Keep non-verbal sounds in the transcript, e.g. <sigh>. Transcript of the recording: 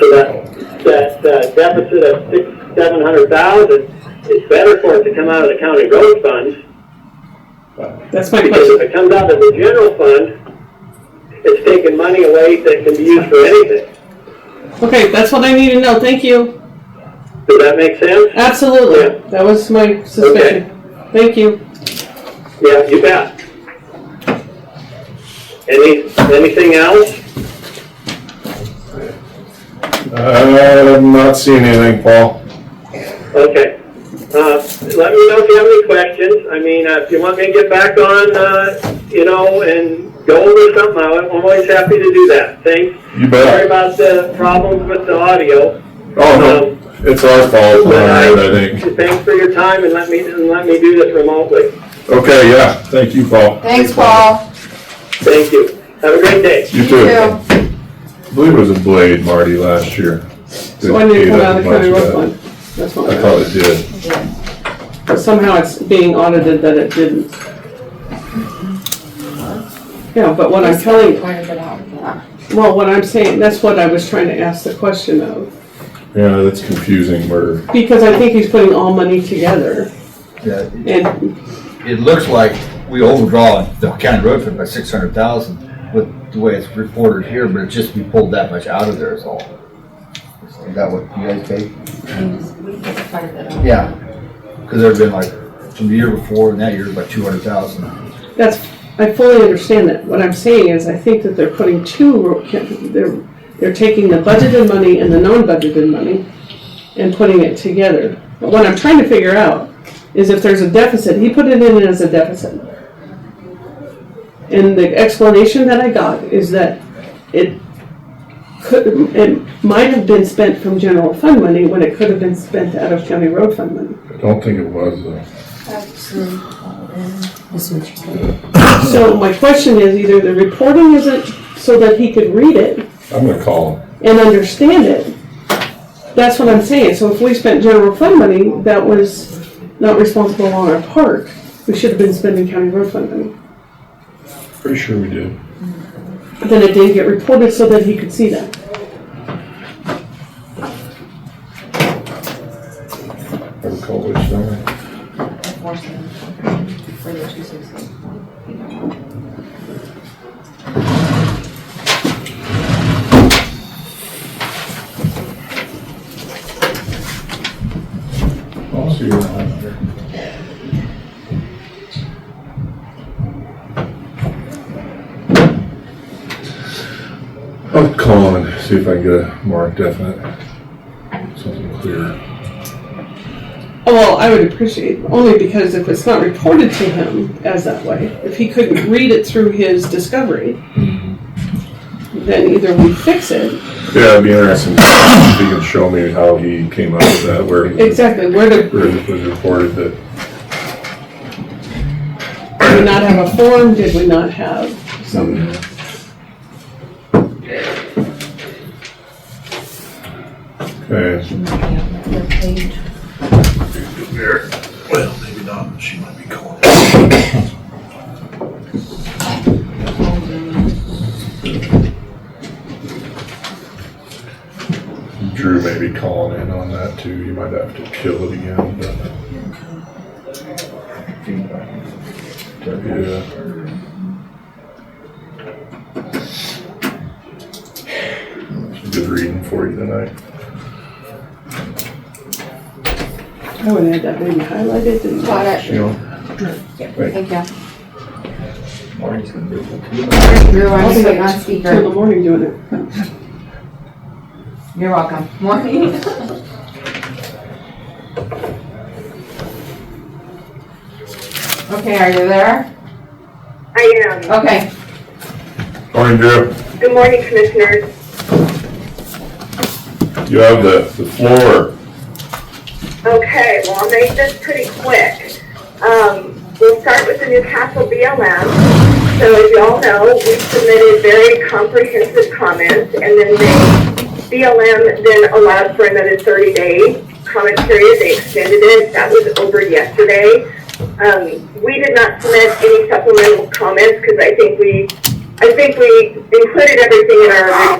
So that, that uh, deficit of six, seven hundred thousand, it's better for it to come out of the county road fund, That's my because if question. it comes out of the general fund, it's taking money away that can be used for anything. Okay, that's what I need to know. Thank you. Does that make sense? Absolutely. That was my suspicion. Thank you. Yeah, you bet. Any, anything else? Uh, I'm not seeing anything, Paul. Okay. Uh, Let me know if you have any questions. I mean, uh, if you want me to get back on, uh, you know, and go over something, I'm always happy to do that. Thanks. You Sorry bet. about the problems with the audio. Oh, no, it's our fault, But I- Brian, I think. Thanks for your time and let me, and let me do this remotely. Okay, yeah, thank you, Paul. Thanks, Paul. Thank you. Have a great day. You too. I believe it was a blade, Marty, last year. So I need to come Didn't out of the county pay that much, road but fund. That's what I I thought it did. thought. Somehow it's being audited that it didn't. Yeah, but what I'm telling you, Pointed it out, yeah. well, what I'm saying, that's what I was trying to ask the question of. Yeah, that's confusing, we're, Because I think he's putting all money together Yeah, and It looks like we overdraw the county road fund by six hundred thousand with the way it's reported here, but it's just we pulled that much out of there is all. Is that what you guys paid? Yeah, because there'd been like, from the year before and that year, about two hundred thousand. That's, I fully understand that. What I'm saying is, I think that they're putting two, they're, they're taking the budgeted money and the non-budgeted money and putting it together. But what I'm trying to figure out is if there's a deficit, he put it in as a deficit. And the explanation that I got is that it could, it might have been spent from general fund money when it could have been spent out of county road fund money. I don't think it was, though. So my question is either the reporting isn't so that he could read it I'm gonna call him. and understand it. That's what I'm saying. So if we spent general fund money, that was not responsible on our part. We should have been spending county road fund money. Pretty sure we did. But then it didn't get reported so that he could see that. I recall which time. I'll see you around. I'll call him and see if I can get a more definite, something clear. Oh, Well, I would appreciate, only because if it's not reported to him as that way, if he couldn't read it through his discovery, then either we fix it, Yeah, it'd be interesting if you can show me how he came up with that, where he- exactly, where to where it was reported that, Did we not have a form? Did we not have some? okay, Well, maybe not, but she might be calling. Drew may be calling in on that too, you might have to kill it again, but, yeah. It's Good reading for you tonight. I would add that maybe highlighted and. Got it. You know, Thank you. Marty's gonna do it. Drew, I'll I'm be sitting like on t- Till the speaker. morning doing it. You're welcome. <laughs> Morning. Okay, are you there? I am. Okay. Morning, Drew, Good morning, Commissioners. you have the, the floor. Okay, well, I'll make this pretty quick. Um, We'll start with the Newcastle BLM. So as you all know, we submitted very comprehensive comments, and then they, BLM then allowed for another 30-day comment period. They extended it. That was over yesterday. Um, We did not submit any supplemental comments because I think we, I think we included everything in our original